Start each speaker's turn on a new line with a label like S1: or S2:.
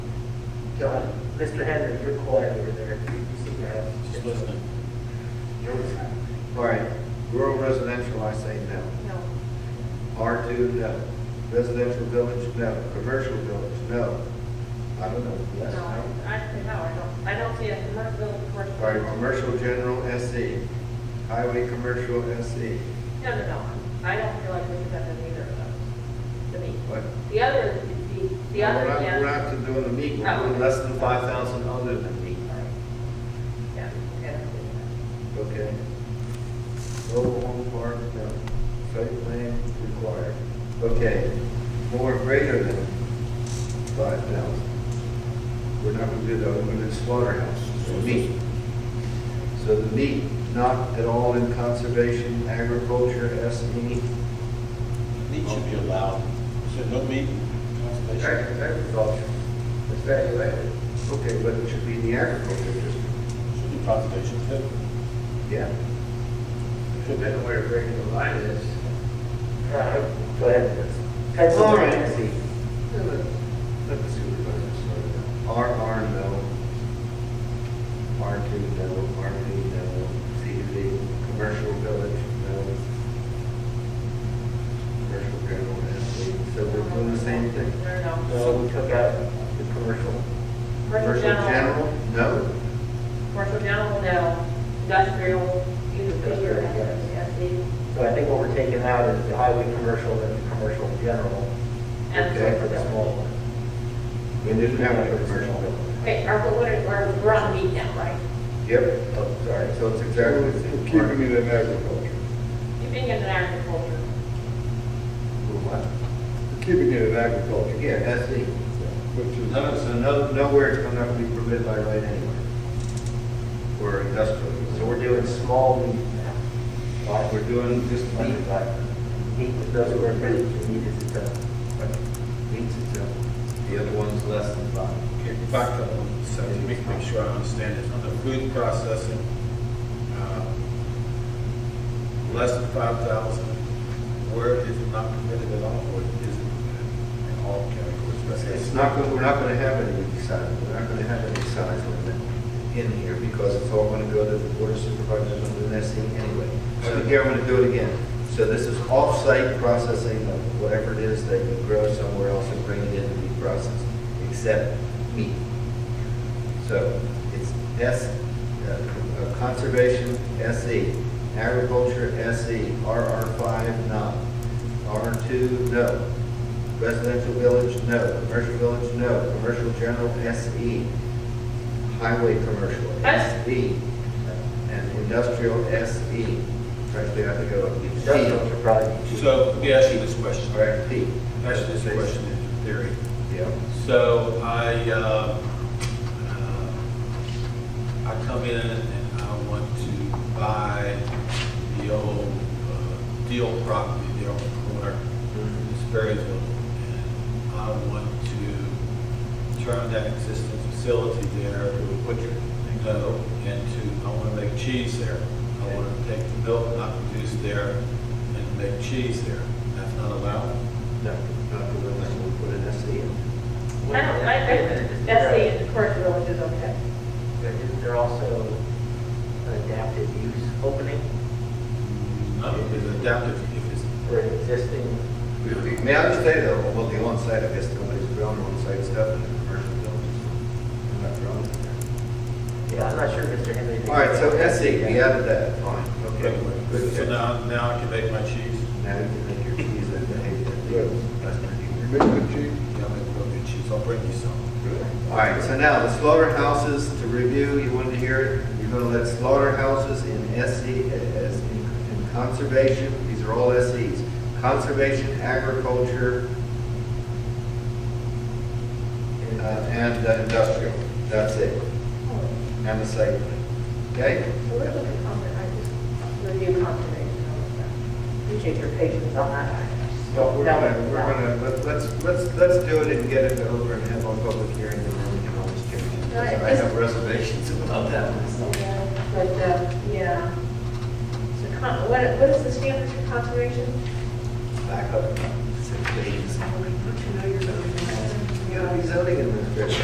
S1: John, Mr. Henry, you're quiet over there. You you seem to have.
S2: Just listening.
S1: You're listening.
S3: All right, rural residential, I say no.
S4: No,
S3: R two, no. Residential village, no. Commercial village, no. I don't know, yes,
S4: no,
S3: no.
S4: I, I- no, I don't, I don't see a commercial, commercial.
S3: All right, commercial general SE, highway commercial E. SE,
S4: No, no, no, I don't feel like we could have done either of those, to me.
S3: what?
S4: The other, the, the
S3: We're
S4: other,
S3: not- We're
S4: yeah,
S3: not to doing the meat, we're
S4: Oh.
S3: doing less than five thousand other than meat.
S4: yeah, okay, that's good.
S3: Okay. Mobile home park, no. Site plan required. Okay, more greater than five thousand. We're not gonna do that, we're gonna do slaughterhouse, so meat. So the meat, not at all in conservation, agriculture, S E.
S2: Meat should be allowed. Should no meat in conservation?
S1: Agri- Agriculture, it's value added.
S3: Okay, but it should be in the agriculture district.
S2: Should be conservation too.
S3: Yeah.
S1: Depending where breaking the line is. Go ahead. That's
S3: All
S1: all
S3: right.
S1: right.
S3: Yeah, Let let the supervisor start. R, R, no. R two, no. R P, no. CV, commercial village, no. Commercial general, SV. So we're doing the same thing.
S4: No, no, no.
S1: So we took out the commercial.
S4: Commercial general,
S3: No.
S4: commercial general, no, industrial, either, either,
S1: Industrial, yes.
S4: yes, the,
S1: So I think what we're taking out is the highway commercial and the commercial general.
S4: and.
S3: Okay.
S1: For the small one.
S3: We didn't have a commercial village.
S4: Wait, are, we- what are, we're, we're on meat now, right?
S3: Yep.
S1: Oh, sorry.
S3: So it's exactly the same.
S5: Keeping it in agriculture.
S4: You've been in agriculture,
S3: What?
S5: Keeping it in agriculture,
S3: Yeah, SV.
S5: which is,
S3: No, so no, nowhere it's gonna have to be permitted by right anywhere. Or industrial.
S1: So we're doing small meat now.
S3: Like we're doing just meat,
S1: Meat, like, meat that doesn't work, but meat is its own.
S3: meats itself. The other one's less than five.
S6: Okay, back up one second, make, make sure I understand this, under food processing, uh, less than five thousand, where is it not permitted at all, or is it in all categories? That's it.
S3: It's not, gonna- we're not gonna have any size, we're not gonna have any size limit in here because it's all gonna go to the board of supervisors under the nesting anyway. So here, I'm gonna do it again. So this is off-site processing of whatever it is that you grow somewhere else and bring it in to be processed, except meat. So it's S, uh, uh, conservation, SE, agriculture, SE, RR five, no. R two, no. Residential village, no. Commercial village, no. Commercial general, SE. Highway commercial,
S4: S.
S3: SE. And industrial, SE. Actually, I have to go up.
S1: Industrial should probably be.
S6: So, let me ask you this question,
S3: All right, P.
S6: ask you this question in theory.
S3: Yeah.
S6: So I, uh, uh, I come in and I want to buy the old uh, Deal property there on the corner, it's Berryville. And I want to turn that existing facility there to a butcher and go into, I want to make cheese there. I want to take the milk I produce there and make cheese there. That's not allowed?
S3: No, not the one that will put an E SE in.
S4: I don't, I, I, that's the, of course, village is okay.
S1: But isn't there also an adaptive use opening
S6: No, it's adaptive, if it's
S1: for an existing?
S3: May I just say though, well, the on-site, I guess nobody's grown on-site stuff in the commercial buildings. They're not grown in there.
S1: Yeah, I'm not sure, Mr. Henry.
S3: All right, so SE, we added that, fine, okay. Good.
S6: So now, now I can make my cheese.
S3: Now you can make your keys and behave That's pretty
S5: you
S3: good.
S5: make the cheese,
S6: Yeah, I'm gonna go get cheese, I'll bring you some.
S3: All right, so now the slaughterhouses to review, you wanted to hear it, you're gonna let slaughterhouses in SE, as in in conservation, these are all SEs. Conservation, agriculture, uh, and uh, industrial, that's it,
S4: So
S3: and the site plan, okay?
S4: we're looking at, conser- I just, review conservation, all of that. Appreciate your patience on that.
S3: Well, we're
S4: No,
S3: gonna, we're
S4: no.
S3: gonna, let- let's, let's, let's do it and get it over and have a public hearing and then we can always change it.
S4: No, it
S3: I have reservations about that myself.
S4: Yeah, But, uh, yeah. So con, what, what is the standard for conservation?
S3: Back up. Six days. You gotta be zoning administration.